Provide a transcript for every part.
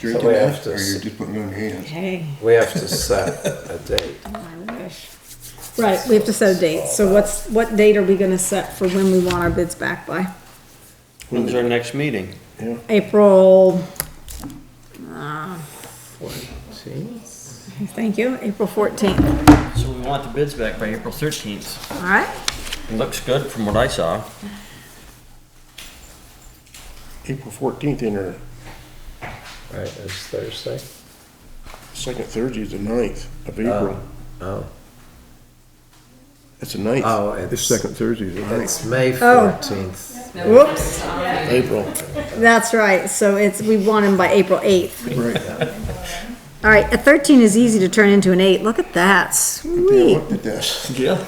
You're So doing we have that, to Or s- you're just putting it on your hands. Hey, We have to set a date. I wish. Right, we have to set a date. So what's, what date are we gonna set for when we want our bids back by? When's our next meeting? Yeah. April, See? thank you, April fourteenth. So we want the bids back by April thirteenth. All right? Looks good from what I saw. April fourteenth in our Right, it's Thursday. second Thursday is the ninth of April. Oh, That's the ninth. oh, This it's, second Thursday is the ninth. it's May Oh. fourteenth. Whoops, April. that's right. So it's, we want them by April eighth. Right. All right, a thirteen is easy to turn into an eight. Look at that, Yeah, I sweet. looked at this. Yeah.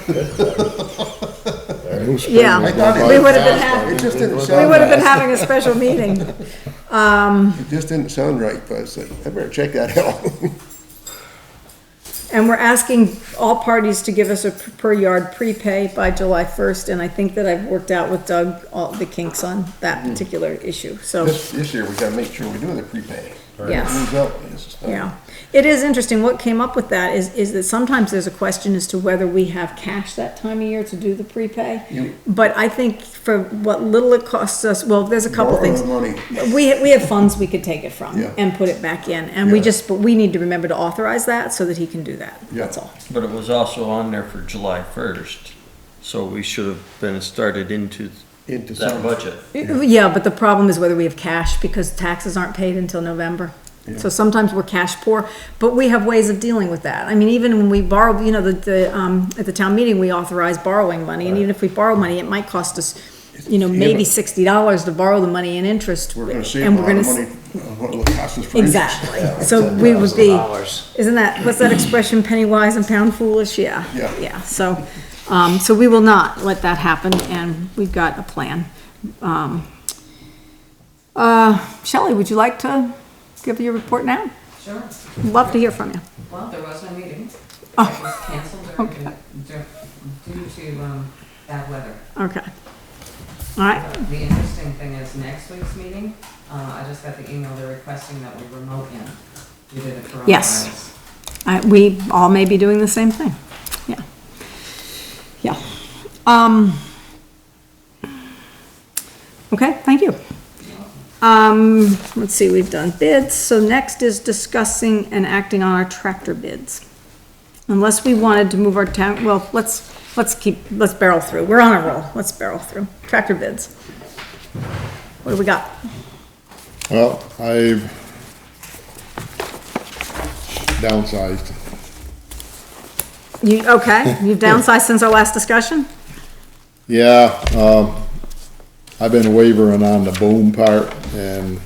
Yeah, I thought it- we would have been having, It just didn't we sound would have been right. having a special meeting. It just didn't sound right, but I was like, I better check that out. And we're asking all parties to give us a per yard prepay by July first, and I think that I've worked out with Doug all the kinks on that particular issue, so, Mm. This, this year, we gotta make sure we do the prepay. yes. Who's up? This is not- Yeah, it is interesting, what came up with that is, is that sometimes there's a question as to whether we have cash that time of year to do the prepay. You- But I think for what little it costs us, well, there's a couple Borrow things. the money. We, we have funds we could take it from Yeah. and put it back in, and we Yeah. just, but we need to remember to authorize that so that he can do that, Yeah. that's all. But it was also on there for July first, so we should have been started into Into that some- budget. Yeah, but the problem is whether we have cash, because taxes aren't paid until November. So sometimes we're cash poor, but we have ways of dealing with that. I mean, even when we borrow, you know, the, the, um, at the town meeting, we authorize borrowing money, and even if we borrow money, it might cost us, you know, Yeah, maybe but- sixty dollars to borrow the money in interest. We're gonna and save a we're lot gonna of s- money, on what it'll cost us for interest. Exactly, so we would be, $10,000. isn't that, what's that expression, penny wise and pound foolish, yeah. Yeah. Yeah, so, um, so we will not let that happen, and we've got a plan. Um, Uh, Shelley, would you like to give your report now? Sure. Love to hear from you. Well, there was no meeting. It was canceled during- dur- due to um, bad weather. Okay. All right, The interesting thing is next week's meeting, uh, I just got the email, they're requesting that we remote in. We did it for. Yes. I, we all may be doing the same thing, yeah. Yeah. Um. Okay, thank you. Um, let's see, we've done bids, so next is discussing and acting on our tractor bids. Unless we wanted to move our town, well, let's, let's keep, let's barrel through, we're on a roll, let's barrel through, tractor bids. What do we got? Well, I've downsized. You, okay, you've downsized since our last discussion? Yeah, um, I've been wavering on the boom part and,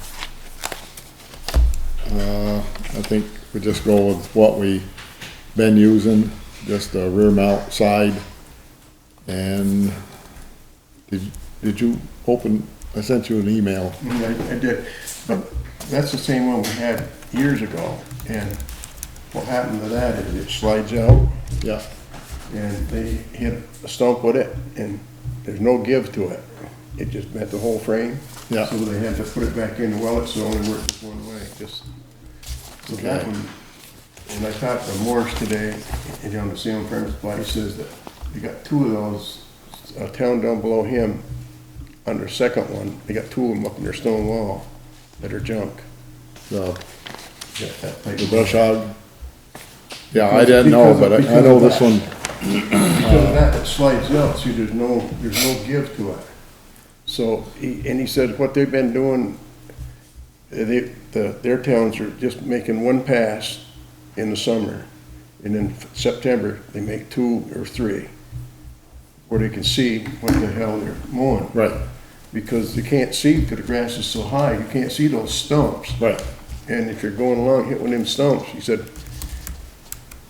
uh, I think we just go with what we been using, just the rear mount side. And did, did you open, I sent you an email. I I did, but that's the same one we had years ago, and what happened to that is it slides out, Yeah, and they hit a stump with it, and there's no give to it. It just bent the whole frame. Yeah. So they had to put it back in, well, it's the only work this one way, just, so that Okay. one. And I talked to Morse today, and on the same premise, but he says that they got two of those, a town down below him, on their second one, they got two of them up in their stone wall that are junk. so That- that type the of- brush hog. Yeah, I didn't know, but I I know this one. Because Uh, of that, it slides out, see, there's no, there's no give to it. So, he, and he said what they've been doing, eh, they, the, their towns are just making one pass in the summer. And in September, they make two or three, where they can see what the hell they're mowing. Right, Because you can't see because the grass is so high, you can't see those stumps. right. And if you're going along, hit one of them stumps, he said,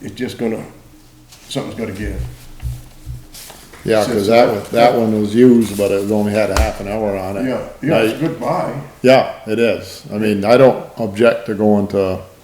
it's just gonna, something's gonna give. Yeah, because that one, that one was used, but it only had a half an hour on it. Yeah, yeah, it's I- a good buy. Yeah, it is. I mean, I don't object to going to